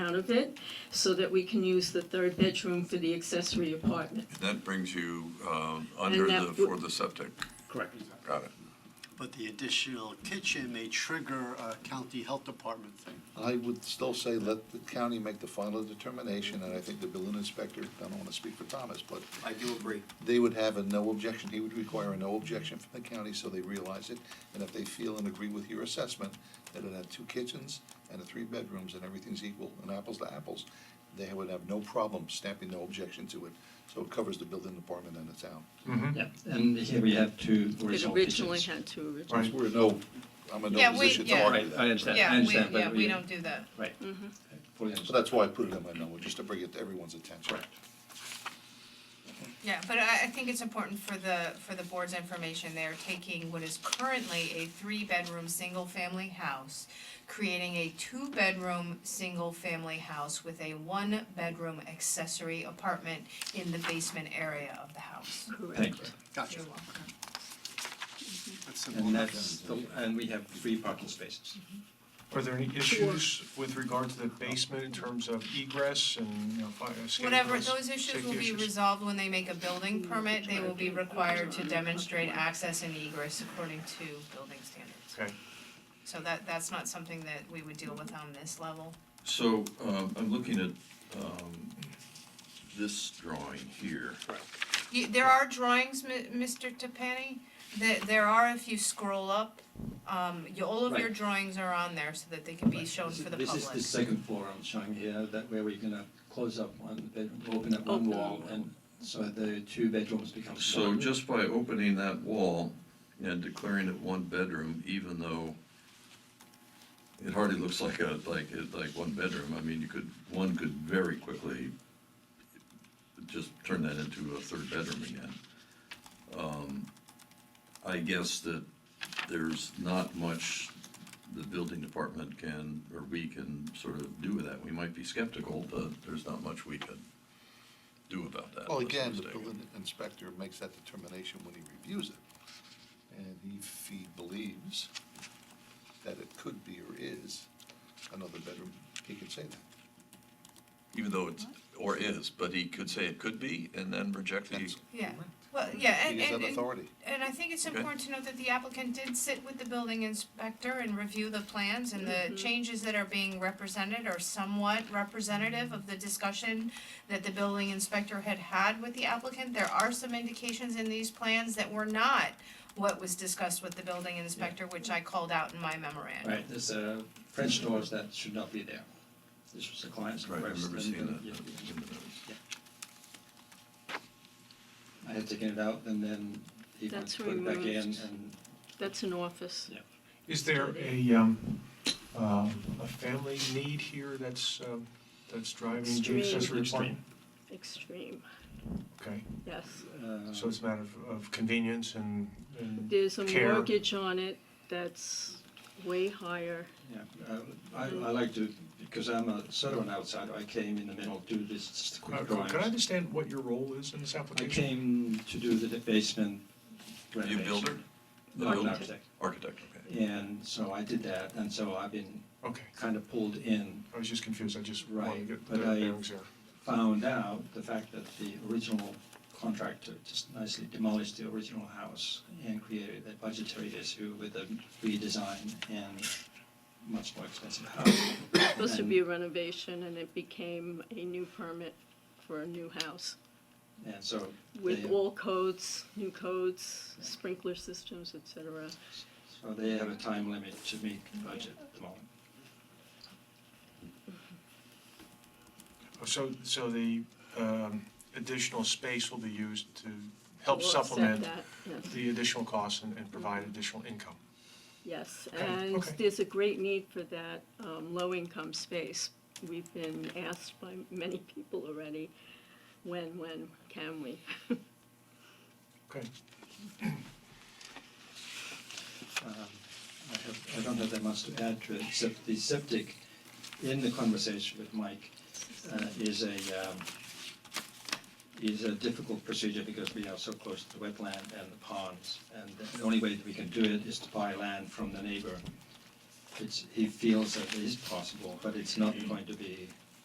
out of it so that we can use the third bedroom for the accessory apartment. That brings you um, under that the, would- for the septic. Correct. Got it. But the additional kitchen may trigger a county health department thing. I would still say let the county make the final determination, and I think the building inspector, I don't wanna speak for Thomas, but I do agree. they would have a no objection, he would require a no objection from the county, so they realize it. And if they feel and agree with your assessment, that it had two kitchens and a three bedrooms and everything's equal and apples to apples, they would have no problem stamping no objection to it, so it covers the building department and the town. Yeah, and here we have two It horizontal originally kitchens. had to originally. Right. We're no, I'm in no Yeah, we- position to yeah. argue Right, that. I understand, I Yeah, we, understand, yeah, but we we, don't do that. right. Mm-hmm. Uh, Fully So understand. that's why I put it in my memo, just to bring it to everyone's attention. Correct. Yeah, but I, I think it's important for the, for the board's information, they're taking what is currently a three-bedroom, single-family house, creating a two-bedroom, single-family house with a one-bedroom accessory apartment in the basement area of the house. Thank you. Gotcha. You're welcome. That's simple And enough. that's, the- and we have three parking spaces. Are there any issues with regard to the basement in terms of egress and, you know, fire, escape? Whatever, routes, those issues will safety be issues? resolved when they make a building permit, they will be required to demonstrate access and egress according to building standards. Okay. So that, that's not something that we would deal with on this level. So, um, I'm looking at, um, this drawing here. You, there are drawings, Mi- Mr. Tepani, there, there are, if you scroll up, um, you, all of your Right. drawings are on there so that they can be shown for the public. This is the second floor I'm showing here, that where we're gonna close up one bedroom, open up one Open wall, and so the two bedrooms become one. So just by opening that wall and declaring it one bedroom, even though it hardly looks like a, like, like one bedroom, I mean, you could, one could very quickly just turn that into a third bedroom again. Um, I guess that there's not much the building department can, or we can sort of do with that. We might be skeptical, but there's not much we can do about that. Well, unless I'm again, the mistaken. building inspector makes that determination when he reviews it. And if he believes that it could be or is another bedroom, he can say that. Even though it's, or is, but he could say it could be and then reject the, That's- Yeah, well, yeah, and, He has and, that and authority. And I think it's Okay. important to note that the applicant did sit with the building inspector and review the plans and the changes that are being represented are somewhat representative of the discussion that the building inspector had had with the applicant. There are some indications in these plans that were not what was discussed with the building inspector, which I called out in my memorandum. Right, there's, uh, French doors that should not be there. This was the client's right, I request. remember and, seeing uh, that. yeah, yeah. that's in the notes. I had taken it out and then he would That's put it back in removed. and That's an office. Is there a, um, um, a family need here that's, um, that's driving Extreme. the accessory apartment? Extreme. Extreme, Okay, yes. uh, so it's a matter of- of convenience and, and There's a Care. mortgage on it that's way higher. yeah, uh, I, I like to, because I'm a sort of an outsider, I came in the middle, do this just Uh, quick Could drawings. could I understand what your role is in this I application? came to do the basement you renovation. builder, No, Architect. an architect. architect, okay. And so I did that, and so I've been Okay, kind of pulled in, I was just confused, I just wanted to Right, get the but I- bearings there. found out the fact that the original contractor just nicely demolished the original house and created a budgetary issue with a redesign and much more expensive house. Supposed to And- be a renovation and it became a new permit for a new house And so with they- all codes, new codes, sprinkler systems, et cetera. So they have a time limit to meet the budget at the moment. Oh, So, so the um, additional space will be used to help To offset supplement that, yes. the additional costs and, and provide additional income. Yes, Okay, and okay. there's a great need for that um, low-income space. We've been asked by many people already, when, when can we? Okay. Um, I have, I don't have that much to add to it, except the septic, in the conversation with Mike, uh, is a, um, is a difficult procedure because we are so close to the wetland and the ponds. And the only way that we can do it is to buy land from the neighbor. It's, he feels that it is possible, but it's not going to be